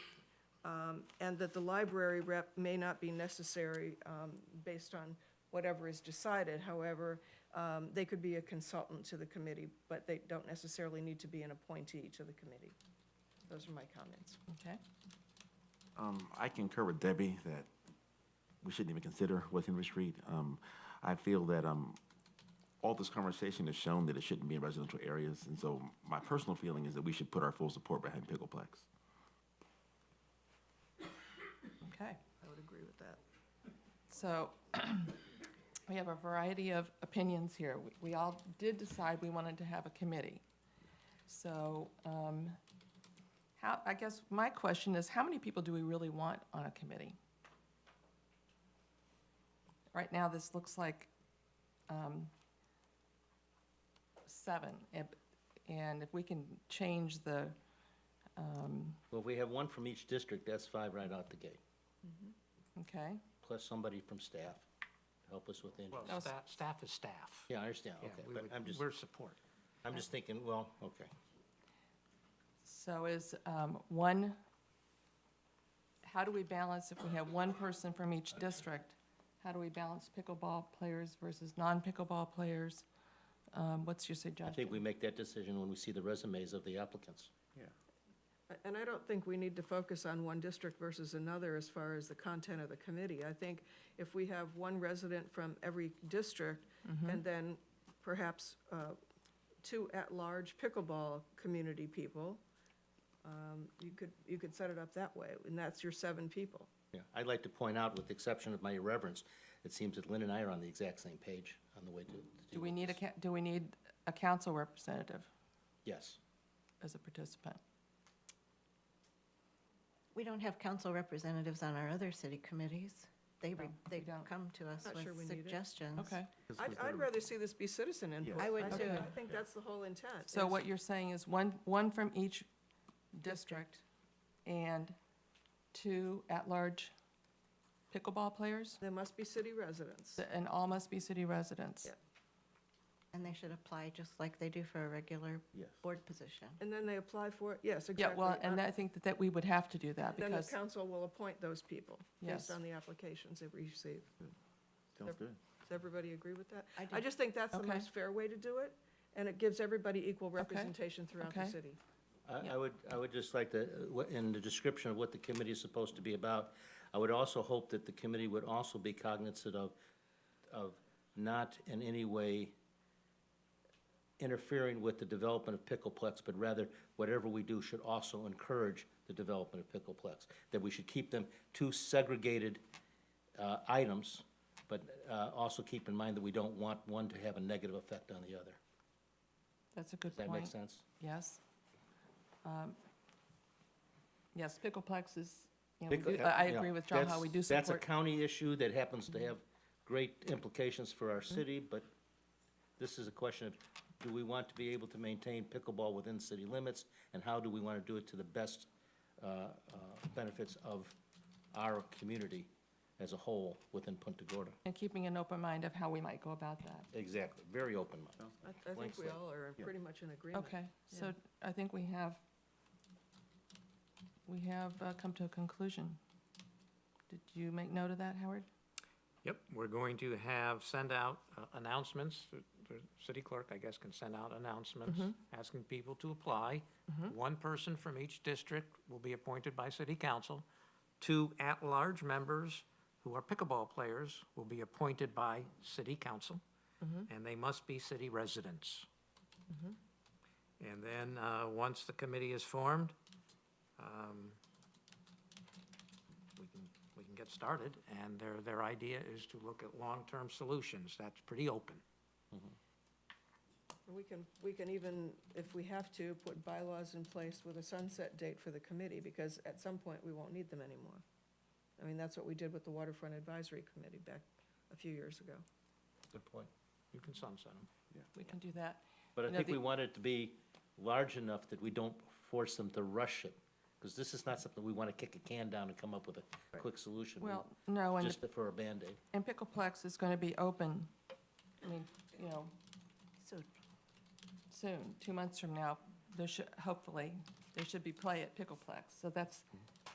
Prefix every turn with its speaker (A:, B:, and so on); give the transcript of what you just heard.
A: um, and that the library rep may not be necessary um, based on whatever is decided. However, um, they could be a consultant to the committee, but they don't necessarily need to be an appointee to the committee. Those are my comments.
B: Okay.
C: Um, I concur with Debbie that we shouldn't even consider West Henry Street. Um, I feel that, um, all this conversation has shown that it shouldn't be in residential areas, and so my personal feeling is that we should put our full support behind Pickleplex.
B: Okay.
A: I would agree with that.
B: So we have a variety of opinions here. We- We all did decide we wanted to have a committee. So um, how, I guess my question is, how many people do we really want on a committee? Right now, this looks like um, seven. If- And if we can change the, um,
D: Well, if we have one from each district, that's five right out the gate,
B: okay,
D: plus somebody from staff to help us with interest.
B: No,
E: Well,
B: s-
E: staff, staff is staff.
D: Yeah, I understand,
E: Yeah,
D: okay,
E: we
D: but
E: would-
D: I'm just,
E: We're support.
D: I'm just thinking, well, okay.
B: So is um, one, how do we balance, if we have one person from each district, how do we balance pickleball players versus non-pickleball players? Um, What's your
D: I
B: suggestion?
D: think we make that decision when we see the resumes of the applicants.
A: A- And I don't think we need to focus on one district versus another as far as the content of the committee. I think if we have one resident from every district,
B: Mm-hmm.
A: and then perhaps uh, two at-large pickleball community people, um, you could, you could set it up that way, and that's your seven people.
D: Yeah, I'd like to point out, with the exception of my irreverence, it seems that Lynn and I are on the exact same page on the way to. to
B: Do we
D: with
B: need a,
D: this.
B: ca- do we need a council representative
D: Yes,
B: as a participant?
F: We don't have council representatives on our other city committees. They, re- they
B: don't.
F: come to us
A: Not sure we
F: with
A: need it.
F: suggestions.
B: Okay,
A: I'd, I'd rather see this be citizen input.
F: I would
A: think-
F: too.
A: I think that's the whole intent.
B: so
A: is-
B: what you're saying is one, one from each district and two at-large pickleball players?
A: There must be city residents.
B: And all must be city residents?
A: Yeah.
F: And they should apply just like they do for a regular
C: Yes.
F: board position.
A: And then they apply for it, yes,
B: Yeah,
A: exactly.
B: well, and
A: Uh,
B: I think that, that we would have to do that
A: Then the
B: because,
A: council will appoint those people
B: Yes.
A: based on the applications they receive.
C: Sounds good.
A: Does everybody agree with that?
F: I
A: I
F: do.
A: just think that's the
B: Okay.
A: most fair way to do it, and it gives everybody equal representation throughout the
B: Okay.
A: city.
D: I,
B: Yeah.
D: I would, I would just like to, uh, what- in the description of what the committee is supposed to be about, I would also hope that the committee would also be cognizant of, of not in any way interfering with the development of Pickleplex, but rather whatever we do should also encourage the development of Pickleplex. That we should keep them two segregated uh, items, but uh, also keep in mind that we don't want one to have a negative effect on the other.
B: that's a good
D: Does that make
B: point.
D: sense?
B: Yes. Um, Yes, Pickleplex is, you know, we
D: Pickle-
B: do- I I
D: yeah,
B: agree with John how
D: that's-
B: we do
D: That's a
B: support.
D: county issue that happens to have great implications for our city, but this is a question of, do we want to be able to maintain pickleball within city limits? And how do we want to do it to the best uh, uh, benefits of our community as a whole within Punta Gorda?
B: And keeping an open mind of how we might go about that.
D: Exactly, very open minded.
A: I, I think
D: Blank
A: we
D: slate.
A: all are pretty much in agreement.
B: Okay, so I think we have, we have uh, come to a conclusion. Did you make note of that, Howard?
E: Yep, we're going to have, send out uh, announcements, The- the city clerk, I guess, can send out announcements,
D: Mm-hmm.
E: asking people to apply. One person from each district will be appointed by city council. Two at-large members who are pickleball players will be appointed by city council,
D: Mm-hmm.
E: and they must be city residents. And then, uh, once the committee is formed, um, we can, we can get started, and their, their idea is to look at long-term solutions, that's pretty open.
A: We can, we can even, if we have to, put bylaws in place with a sunset date for the committee, because at some point, we won't need them anymore. I mean, that's what we did with the Waterfront Advisory Committee back a few years ago.
D: Good point.
E: You can sunset them.
B: We can do that.
D: But I
B: No,
D: think
B: the-
D: we want it to be large enough that we don't force them to rush it, because this is not something we want to kick a can down and come up with a quick solution. We-
B: Well, no, and the
D: Just for a Band-Aid.
B: And Pickleplex is going to be open, I mean, you know,
F: So
B: soon, two months from now, there should, hopefully, there should be play at Pickleplex. So that's,